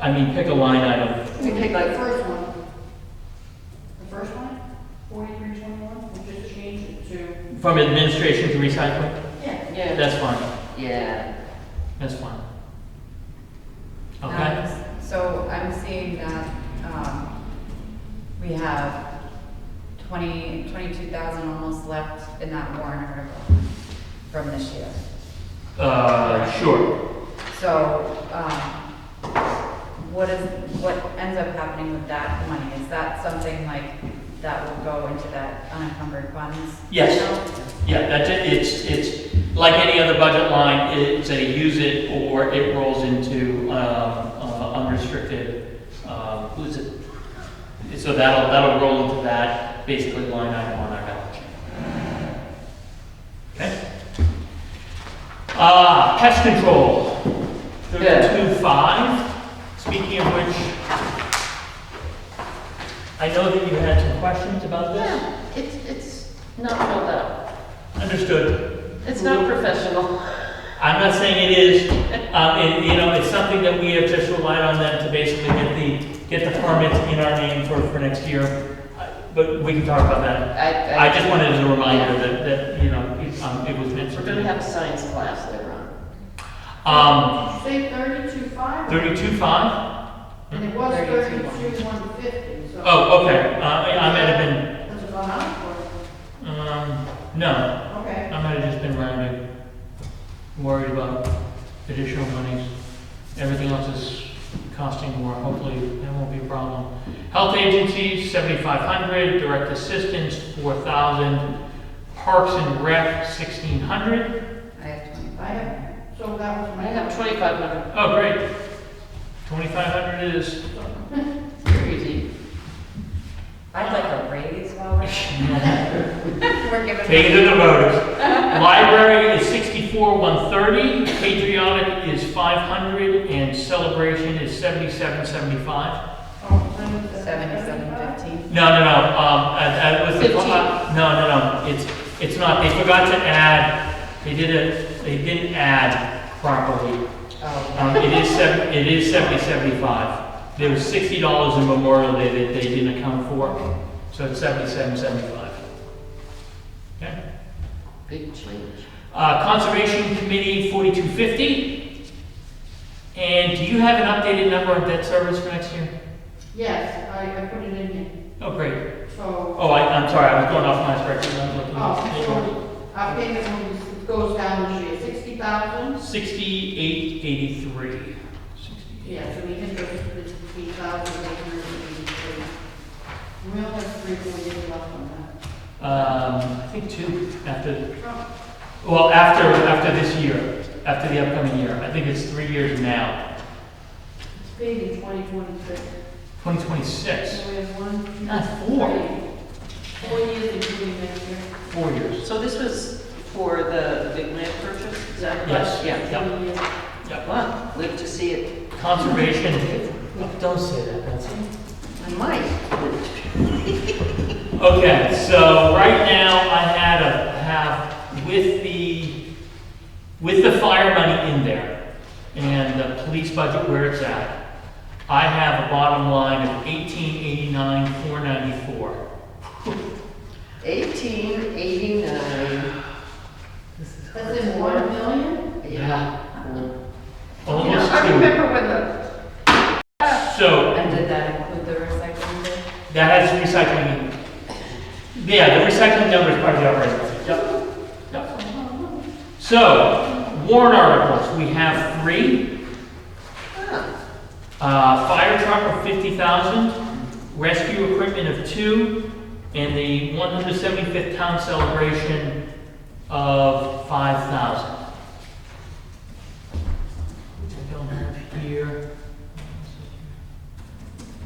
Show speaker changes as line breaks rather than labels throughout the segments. I mean, pick a line item,
We pick the first one. The first one, forty-three twenty-one, we just change it to.
from administration to recycling,
Yeah. Yeah.
that's fine,
Yeah.
that's fine. Okay?
Um, So I'm seeing that, um, we have twenty, twenty-two thousand almost left in that warrant article from this year.
Uh, sure,
So, um, what is, what ends up happening with that money? Is that something like that will go into that unencumbered funds?
Yes.
account?
yeah, that's it, it's, it's, like any other budget line, it's a use it or it rolls into, um, uh, unrestricted, um, who's it? So that'll, that'll roll into that basically line item on our balance sheet. Okay? Uh, pest control,
Yeah.
thirty-two five, speaking of which, I know that you had some questions about this.
Yeah, it's, it's not filled out.
Understood.
It's not professional.
I'm not saying it is, um, it, you know, it's something that we have just relied on them to basically get the, get the permits in our name for, for next year. Uh, But we can talk about that. I just wanted as a reminder that, that, you know, it, um, it was meant
We're gonna
to
have a science class later on.
be. Um,
Say thirty-two five,
thirty-two five?
and it was
32.
thirty-two one fifty, so.
Oh, okay, uh, I I might have been,
That's a gone up
um, no,
for, okay.
I might have just been rounding. Worried about additional monies. Everything else is costing more, hopefully that won't be a problem. Health agencies, seventy-five hundred, direct assistance, four thousand, parks and rec, sixteen hundred.
I have
I
twenty-five.
have, so that was
I
my.
have twenty-five hundred,
Oh, great. Twenty-five hundred is,
You're easy.
I'd like a raise while we're. We're giving.
Take it to the voters. Library is sixty-four, one thirty, patriotic is five hundred, and celebration is seventy-seven, seventy-five.
Oh, seven-
Seventy-seven fifteen.
No, no, no, um, I, I was. the-
Fifteen.
No, no, no, it's, it's not, they forgot to add, they did it, they didn't add properly.
Oh,
Um, it is seven, it is seventy, seventy-five. There was sixty dollars in Memorial Day that they didn't account for, so it's seventy-seven, seventy-five. Okay?
Big change.
Uh, Conservation Committee, 4250. And do you have an updated number on debt service for next year?
Yes, I, I put it in here,
Oh, great.
so,
Oh, I, I'm sorry, I was going off my spreadsheet. I'm looking
oh,
at-
so our payment will- goes down this year, sixty thousand.
6883. 68.
Yeah, so we hit the fifty thousand eight hundred and eighty-three. We only have three, four years left on
Um, I think two after,
that. Oh,
well, after, after this year, after the upcoming year. I think it's three years now.
It's paid in twenty twenty-six,
2026,
so we have one.
Not four.
three, Four years including next year.
four years.
So this was for the big land purchase, is that right?
Yes.
Yeah.
Yep.
Four years.
Yep.
Wow, live to see it.
Conservation, don't say that, Betsy.
I might.
Okay, so right now I had a, have, with the, with the fire money in there and the police budget where it's at, I have a bottom line of eighteen eighty-nine, four ninety-four.
Eighteen eighty-nine.
That's in one million?
Yeah.
Almost
I
two.
remember when the,
So
and did that include the recycling bin?
that has recycling. in- Yeah, the recycling number is part of the operating budget. Yep. Yep. So, warrant articles, we have three.
ah,
Uh, fire truck of fifty thousand, rescue equipment of two, and the one hundred seventy-fifth town celebration of five thousand. Which I don't have here.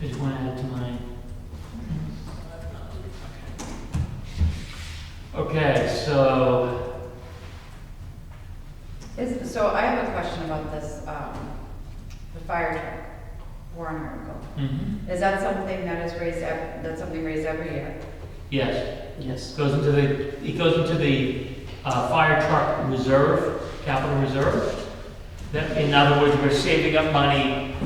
I just want to add to my. Okay, so,
Is, so I have a question about this, um, the fire truck warrant article.
mhm,
Is that something that is raised, ev- that's something raised every year?
yes.
yes.
Goes into the, it goes into the uh, fire truck reserve, capital reserve. That, in other words, we're saving up money